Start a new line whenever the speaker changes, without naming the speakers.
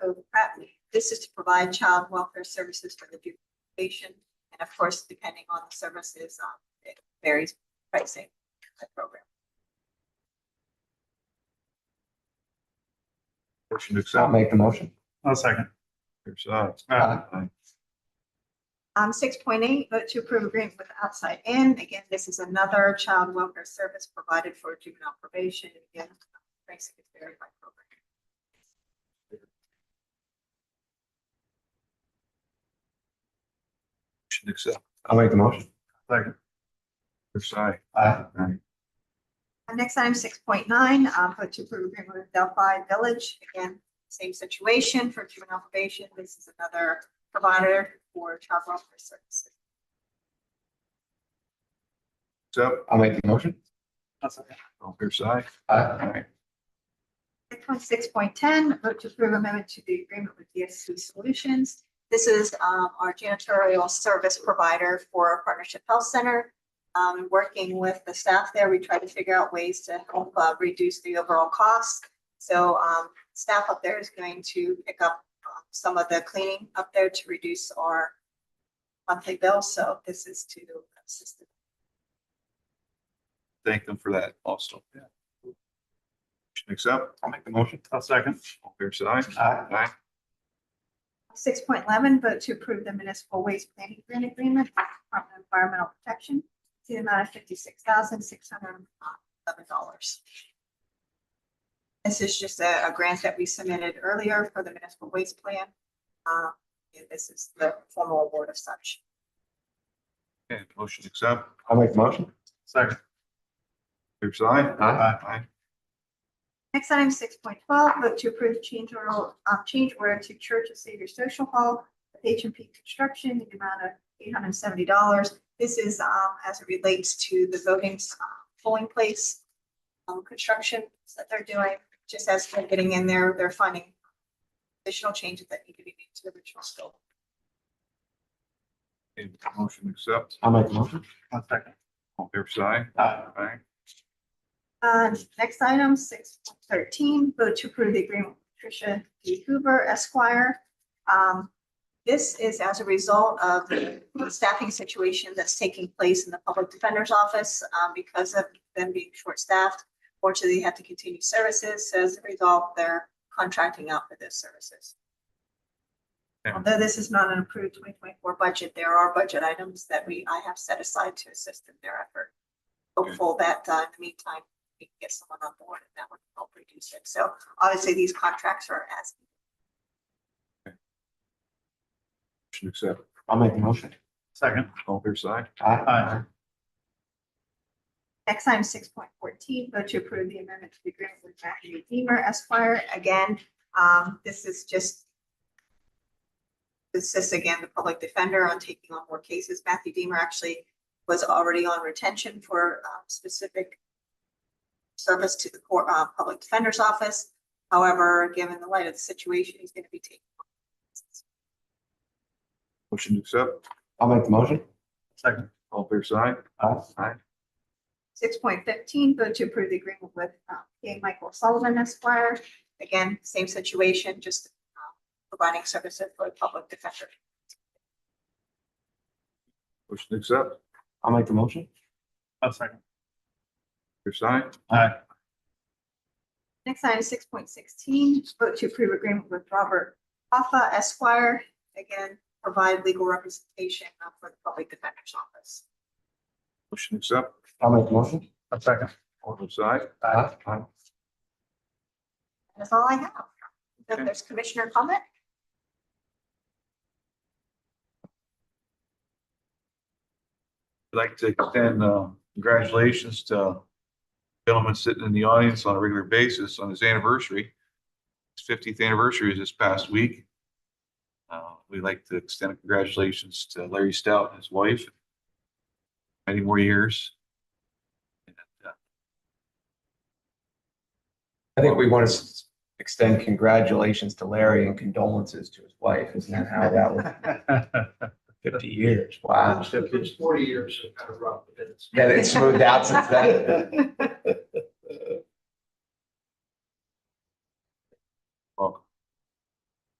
Cove Pratt. This is to provide child welfare services for the juvenile population, and of course, depending on the services, um, it varies pricing by program.
Motion to
I'll
accept.
make the motion.
I'll second.
Fair side.
Aye.
Aye.
Um, six point eight, vote to approve agreement with Outside In. Again, this is another child welfare service provided for juvenile probation. Again, pricing is varied by program.
Motion to accept.
I'll make the motion.
Second. Fair side.
Aye.
Aye.
Uh, Next item, six point nine, um, vote to approve agreement with Delphi Village. Again, same situation for juvenile probation. This is another provider for child welfare services.
Accept.
I'll make the motion.
I'll second.
All fair side.
Aye.
Next one, six point ten, vote to approve amendment to the agreement with DSC Solutions. This is, um, our janitorial service provider for our Partnership Health Center. Um, and working with the staff there, we try to figure out ways to help, uh, reduce the overall cost. So, um, staff up there is going to pick up uh, some of the cleaning up there to reduce our monthly bill, so this is to assist.
Thank them for that also. Yeah. Motion to accept.
I'll make the motion.
I'll second.
All fair side.
Aye.
Aye.
Six point eleven, vote to approve the municipal waste planning grant agreement with Department of Environmental Protection to the amount of fifty-six thousand, six hundred and eleven dollars. This is just a, a grant that we submitted earlier for the municipal waste plan. Uh, and this is the formal award of such.
Okay, motion to accept.
I'll make the motion.
Second.
Fair side.
Aye.
Aye.
Next item, six point twelve, vote to approve change order, uh, change order to Church of Savior Social Hall, H and P Construction, in the amount of eight hundred and seventy dollars. This is, um, as it relates to the voting, uh, polling place, um, construction that they're doing, just as they're getting in there, they're finding additional changes that need to be made to the original scope.
Okay, Motion to accept.
I'll make the motion.
I'll second.
All fair side.
Aye.
Aye.
Uh, next item, six thirteen, vote to approve the agreement with Patricia D. Hoover Esquire. Um, this is as a result of the staffing situation that's taking place in the Public Defender's Office, um, because of them being short-staffed. Fortunately, they have to continue services, so as a result, they're contracting out for those services. Although this is not an approved twenty twenty-four budget, there are budget items that we, I have set aside to assist in their effort. Hopeful that, uh, in the meantime, we can get someone on board and that would help reduce it. So obviously, these contracts are as.
Motion to accept.
I'll make the motion.
Second.
All fair side.
Aye.
Next item, six point fourteen, vote to approve the amendment to the agreement with Matthew Deemer Esquire. Again, um, this is just. This is again, the public defender on taking on more cases. Matthew Deemer actually was already on retention for um, specific. Service to the court, uh, public defender's office. However, given the light of the situation, he's gonna be taking.
Motion to accept.
I'll make the motion.
Second.
All fair side.
Aye.
Six point fifteen, vote to approve the agreement with um, K. Michael Sullivan Esquire. Again, same situation, just um, providing services for the public defender.
Motion to accept.
I'll make the motion.
I'll second.
Fair side.
Aye.
Next item, six point sixteen, vote to approve agreement with Robert Hoffa Esquire. Again, provide legal representation uh, for the public defender's office.
Motion to accept.
I'll make the motion.
I'll second.
All fair side.
Aye.
That's all I have. If
Okay.
there's commissioner comment,
I'd like to extend uh, congratulations to a gentleman sitting in the audience on a regular basis on his anniversary. His fiftieth anniversary is this past week. Uh, We'd like to extend congratulations to Larry Stout and his wife. Many more years. And, uh,
I think we want to s- extend congratulations to Larry and condolences to his wife. Isn't that how that was?
Uh,
Fifty years. Wow.
It's been forty years of kind of rough. but it's-
Yeah, it's smoothed out since then.